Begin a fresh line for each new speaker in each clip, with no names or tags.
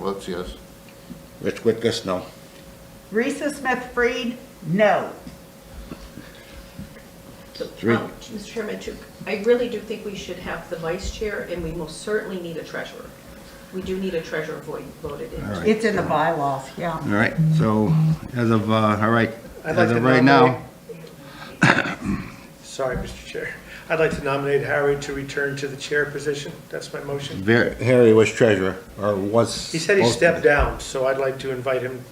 Let's yes.
Rich Whitkus, no.
Risa Smith Freed, no.
Three.
Um, Mr. Chairman, to- I really do think we should have the vice chair, and we most certainly need a treasurer. We do need a treasurer vo- voted in.
All right.
It's in the bylaws, yeah.
All right, so as of, uh, all right,
I'd like
as
to
of right now,
nominate- Sorry, Mr. Chair. I'd like to nominate Harry to return to the chair position. That's my motion.
Ver- Harry was treasurer, or was.
He said he
supposed to be.
stepped down, so I'd like to invite him,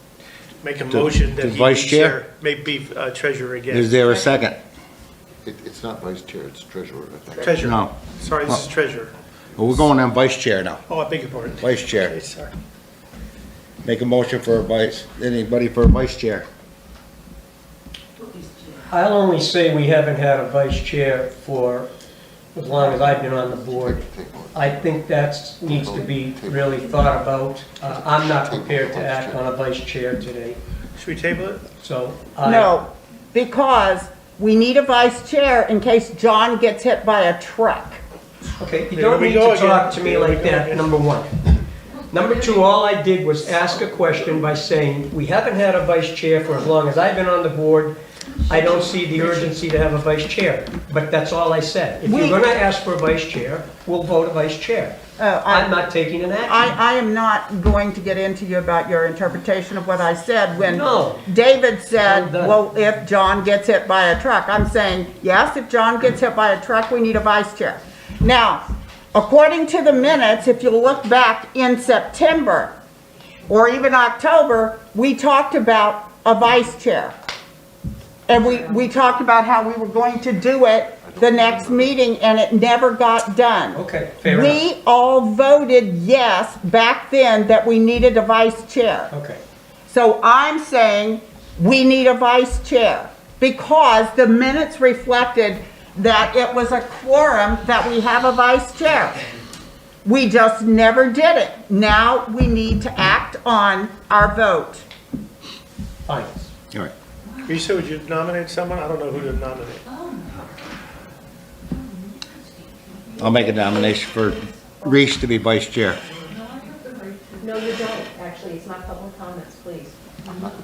make a
To-
motion that
to
he be
vice chair?
chair, may be uh, treasurer
Is
again.
there a second?
It, it's not vice chair, it's treasurer, I think.
Treasurer.
No.
Sorry, this is treasurer.
Well, we're going on vice chair now,
Oh, I beg your pardon.
vice
Okay,
chair.
sorry.
Make a motion for a vice, anybody for a vice chair?
I'll only say we haven't had a vice chair for as long as I've been on the board.
Take one.
I think that needs to be really thought about. Uh, I'm not prepared to act on a vice chair today,
Should we table it?
so. I-
No, because we need a vice chair in case John gets hit by a truck.
Okay, you
There
don't
we
need
go
to
again.
talk to me
There we
like
go
that,
again.
number one. Number two, all I did was ask a question by saying, we haven't had a vice chair for as long as I've been on the board. I don't see the urgency to have a vice chair, but that's all I said. If you're
We-
gonna ask for a vice chair, we'll vote a vice chair.
Oh, I-
I'm not taking an action.
I, I am not going to get into you about your interpretation of what I said when
No.
David said,
Well done.
well, if John gets hit by a truck. I'm saying, yes, if John gets hit by a truck, we need a vice chair. Now, according to the minutes, if you look back in September or even October, we talked about a vice chair. And we, we talked about how we were going to do it the next meeting and it never got done.
Okay, fair enough.
We all voted yes back then that we needed a vice chair.
Okay,
So I'm saying we need a vice chair because the minutes reflected that it was a quorum that we have a vice chair. We just never did it. Now we need to act on our vote.
fine.
All right,
Risa, would you nominate someone? I don't know who to nominate.
I'll make a nomination for Reese to be vice chair.
No, you don't, actually, it's not public comments, please.
So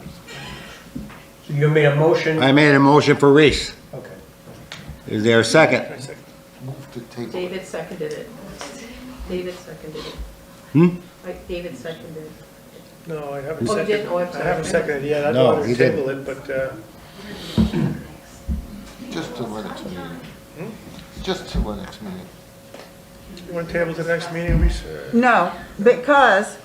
you made a motion,
I made a motion for Reese.
okay.
Is there a second?
Wait a second.
Move to table.
David seconded it. David seconded it. Like, David seconded it.
No, I haven't
Oh, you
seconded.
didn't? Oh, I'm
I
sorry.
haven't seconded yet.
No,
I don't want
he
to
didn't.
table it, but uh,
Just to the next meeting. Just to the next meeting.
you want to table to the next meeting, Risa?
No, because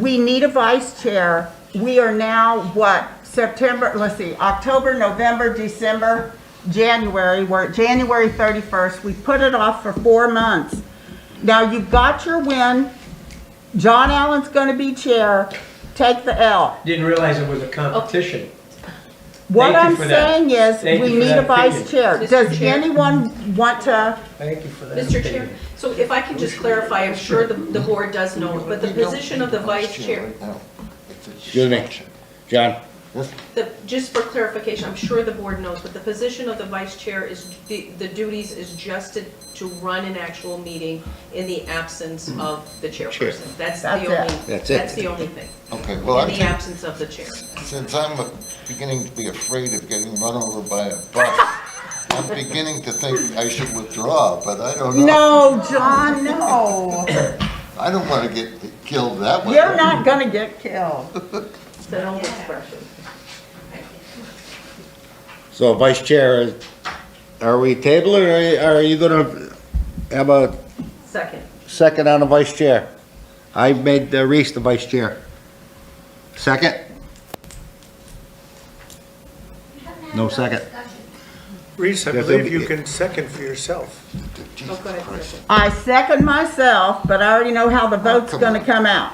we need a vice chair. We are now, what, September, let's see, October, November, December, January, we're at January 31st. We put it off for four months. Now, you've got your win. John Allen's going to be chair. Take the L.
Didn't realize it was a competition.
What
Thank you
I'm
for that.
saying is,
Thank
we
you for
need
that
a vice
opinion.
chair.
Mr.
Does
Chair.
anyone want to?
Thank you for that.
Mr. Chair, so if I could just clarify, I'm sure the, the board does know, but the
We don't
position of the
need a
vice chair,
right now. It's a
Excuse me.
distraction.
John?
Yes,
the, just for clarification, I'm sure the board knows, but the position of the vice chair is, the the duties is just to, to run an actual meeting in the absence of the chairperson. That's
That's
the only,
it.
That's it.
that's the only thing,
okay, well, I
in the
think,
absence of the chair.
since I'm beginning to be afraid of getting run over by a bus, I'm beginning to think I should withdraw, but I don't know.
No, John, no.
I don't want to get killed that way.
You're not going to get killed.
It's an old expression.
So vice chair, are we tabling, or are you gonna have a
Second.
second on the vice chair? I made uh, Reese the vice chair. Second? No second.
Reese, I
Yes,
believe
it'll
you
be-
can second for yourself.
Oh,
Jesus
go ahead,
Christ.
second.
I second myself, but I already know how the vote's gonna Oh, come out.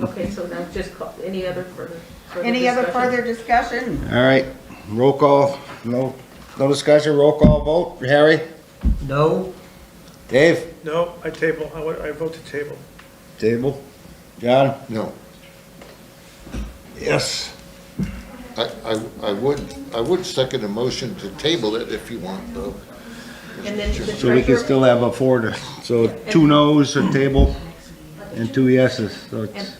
Okay, so now just call, any other further? further
Any other
discussion?
further discussion?
All right, roll call, no, no discussion, roll call vote. Harry?
No,
Dave?
No, I table, I wa- I vote to table.
Table. John?
No,
Yes.
I, I, I would, I would second a motion to table it if you want, though.
And then the
So we can
treasurer,
still have a four to, so two noes, a table, and two yeses, so it's.